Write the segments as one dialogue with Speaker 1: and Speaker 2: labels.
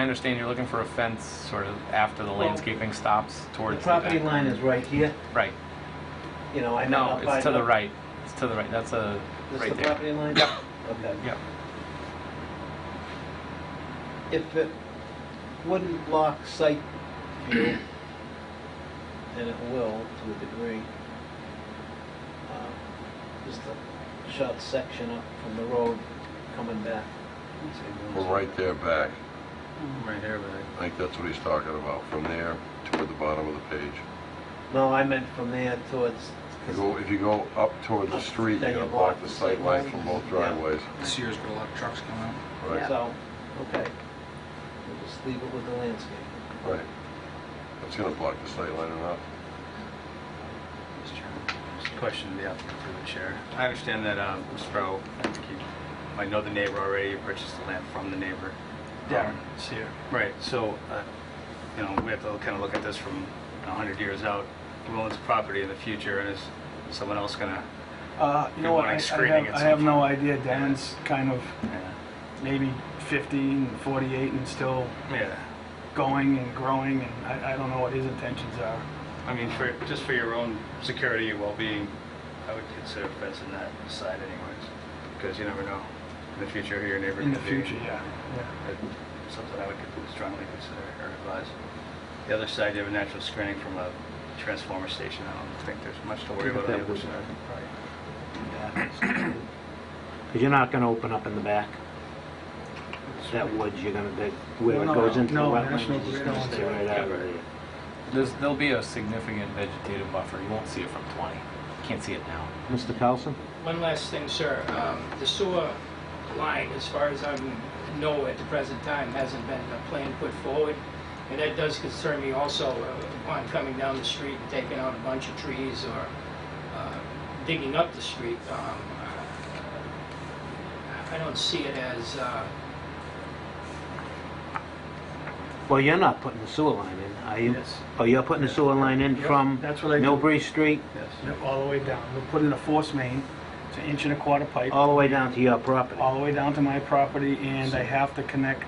Speaker 1: I understand you're looking for a fence sort of after the landscaping stops
Speaker 2: The
Speaker 1: towards the
Speaker 2: property
Speaker 1: back.
Speaker 2: line is right here,
Speaker 1: Right.
Speaker 2: you know, I know.
Speaker 1: No, it's to the right. It's to the right. That's a,
Speaker 2: This is
Speaker 1: right
Speaker 2: the
Speaker 1: there.
Speaker 2: property line?
Speaker 1: Yep.
Speaker 2: Okay.
Speaker 1: Yep.
Speaker 2: If it wouldn't block sight view, and it will to a degree, um, just a short section up from the road coming back.
Speaker 3: From right there back,
Speaker 1: Right here, but.
Speaker 3: I think that's what he's talking about, from there toward the bottom of the page.
Speaker 2: No, I meant from there towards,
Speaker 3: If you go- If you go up toward the street, you're
Speaker 2: Then
Speaker 3: gonna
Speaker 2: you
Speaker 3: block
Speaker 2: block the
Speaker 3: the sight
Speaker 2: sight
Speaker 3: line
Speaker 2: line.
Speaker 3: from both
Speaker 2: Yeah.
Speaker 3: driveways.
Speaker 4: This year's got a lot of trucks coming out.
Speaker 3: Right,
Speaker 2: so, okay. We'll just leave it with the landscape.
Speaker 3: right. That's gonna block the sight line enough.
Speaker 5: Mr. Chairman, just a question to the applicant through the chair. I understand that, um, Mr. Farrell, I think you might know the neighbor already, you purchased the land from the neighbor.
Speaker 4: Darren,
Speaker 5: Um,
Speaker 4: it's here.
Speaker 5: Right, so, uh, you know, we have to kind of look at this from 100 years out. Who owns property in the future, and is someone else gonna,
Speaker 4: Uh, you know
Speaker 5: Good
Speaker 4: what, I I
Speaker 5: morning, screening
Speaker 4: have,
Speaker 5: at
Speaker 4: I
Speaker 5: some
Speaker 4: have no
Speaker 5: point.
Speaker 4: idea. Dan's kind of
Speaker 5: yeah,
Speaker 4: maybe 50 and 48 and still
Speaker 5: yeah.
Speaker 4: going and growing, and I, I don't know what his intentions are.
Speaker 5: I mean, for, just for your own security and well-being, I would consider fencing that side anyways, because you never know in the future who your neighbor
Speaker 4: In
Speaker 5: could
Speaker 4: the
Speaker 5: be.
Speaker 4: future, yeah.
Speaker 5: That's Something I would strongly consider or advise. The other side, you have a natural screening from a transformer station. I don't think there's much to worry about on the other side.
Speaker 6: Because you're not going to open up in the back. That woods, you're going to, where it
Speaker 4: No, no,
Speaker 6: goes into the
Speaker 4: no,
Speaker 6: wetlands,
Speaker 4: National
Speaker 6: it's
Speaker 4: Grid
Speaker 6: going to
Speaker 4: owns
Speaker 6: stay
Speaker 4: it.
Speaker 6: right out of there.
Speaker 1: There's, there'll be a significant vegetative buffer. You won't see it from 20. Can't see it now.
Speaker 6: Mr. Carlson?
Speaker 7: One last thing, sir. Um, The sewer line, as far as I know at the present time, hasn't been a plan put forward. And that does concern me also uh, upon coming down the street and taking out a bunch of trees or uh, digging up the street. Um, I don't see it as, uh,
Speaker 6: Well, you're not putting the sewer line in, are you?
Speaker 5: Yes.
Speaker 6: Oh, you're putting the sewer line in
Speaker 4: Yep,
Speaker 6: from
Speaker 4: that's what I do.
Speaker 6: Millbury Street
Speaker 5: Yes.
Speaker 4: Yeah, all the way down. We're putting a force main. It's an inch and a quarter pipe.
Speaker 6: all the way down to your property?
Speaker 4: all the way down to my property, and I have to connect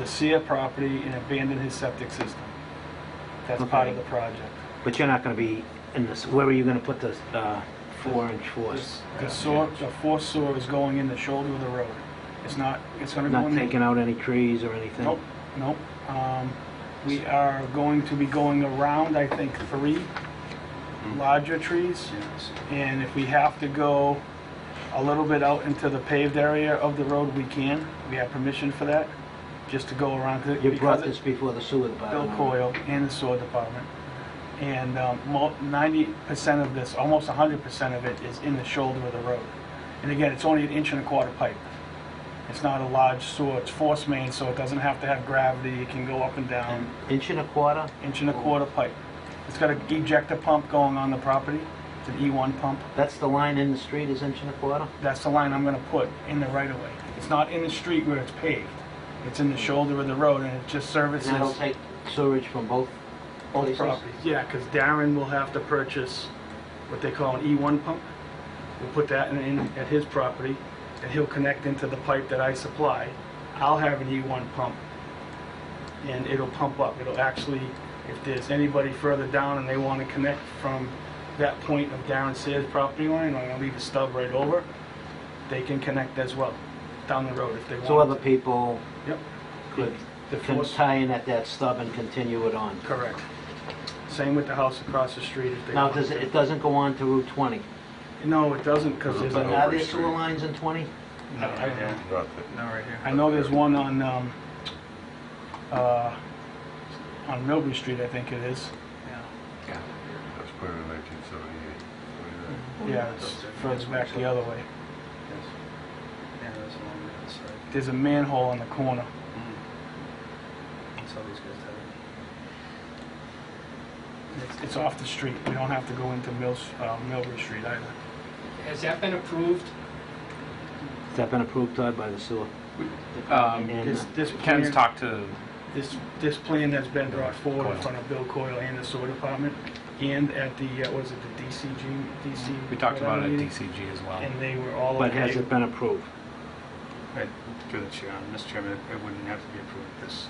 Speaker 4: the Sia property and abandon his septic system. That's part of
Speaker 6: Okay.
Speaker 4: the project.
Speaker 6: But you're not going to be in this, where are you going to put this uh, four-inch force?
Speaker 4: This- The sewer, the force sewer is going in the shoulder of the road. It's not, it's gonna go
Speaker 6: Not
Speaker 4: in.
Speaker 6: taking out any trees or anything?
Speaker 4: Nope, nope. Um, We are going to be going around, I think, three larger trees.
Speaker 5: Yes.
Speaker 4: And if we have to go a little bit out into the paved area of the road, we can. We have permission for that, just to go around. 'cause-
Speaker 6: You
Speaker 4: because
Speaker 6: brought
Speaker 4: it-
Speaker 6: this before the sewer
Speaker 4: Bill
Speaker 6: department?
Speaker 4: Coyle and the sewer department. And um, ninety percent of this, almost hundred percent of it is in the shoulder of the road. And again, it's only an inch and a quarter pipe. It's not a large sewer, it's force main, so it doesn't have to have gravity, it can go up and
Speaker 6: An
Speaker 4: down,
Speaker 6: inch and a quarter?
Speaker 4: inch and a quarter pipe. It's got an ejector pump going on the property, it's an E one pump.
Speaker 6: That's the line in the street is inch and a quarter?
Speaker 4: That's the line I'm gonna put in the right of way. It's not in the street where it's paved. It's in the shoulder of the road and it just
Speaker 6: And
Speaker 4: services.
Speaker 6: that'll take sewage from both
Speaker 4: Both
Speaker 6: places?
Speaker 4: properties, yeah, because Darren will have to purchase what they call an E1 pump. We'll put that in- in at his property, and he'll connect into the pipe that I supply. I'll have an E1 pump, and it'll pump up. It'll actually, if there's anybody further down and they want to connect from that point of Darren Sayers' property line, I'm going to leave a stub right over, they can connect as well down the road if they want.
Speaker 6: So other people
Speaker 4: Yep.
Speaker 6: could
Speaker 4: The
Speaker 6: can
Speaker 4: force-
Speaker 6: tie in at that stub and continue it on.
Speaker 4: Correct. Same with the house across the street if they
Speaker 6: Now,
Speaker 4: want.
Speaker 6: does
Speaker 4: to.
Speaker 6: it, it doesn't go on to Route 20?
Speaker 4: No, it doesn't, because there's,
Speaker 6: But
Speaker 4: a-
Speaker 6: are there sewer lines in 20?
Speaker 5: No, right here.
Speaker 3: Not that-
Speaker 5: No, right here.
Speaker 4: I know there's one on, um, uh, on Milbury Street, I think it is.
Speaker 3: That's put in nineteen seventy-eight.
Speaker 4: Yeah, it's further back the other way.
Speaker 5: Yes. Yeah, that's along the other side.
Speaker 4: There's a manhole on the corner.
Speaker 5: That's all these guys have.
Speaker 4: It's, it's off the street. We don't have to go into Mills, uh, Milbury Street either.
Speaker 7: has that been approved?
Speaker 6: Has that been approved Todd, by the sewer?
Speaker 1: Um,
Speaker 6: And, uh,
Speaker 4: This, this
Speaker 1: Ken's
Speaker 4: plan,
Speaker 1: talked to,
Speaker 4: this, this plan that's been brought forward in
Speaker 1: Coyle.
Speaker 4: front of Bill Coyle and the sewer department, and at the, uh, what is it, the DCG, DC?
Speaker 1: we talked about it
Speaker 4: whatever
Speaker 1: at
Speaker 4: meeting,
Speaker 1: DCG as well.
Speaker 4: And they were all okay.
Speaker 6: But has it been approved?
Speaker 5: Right. Through the chair, Mr. Chairman, it wouldn't have to be approved at this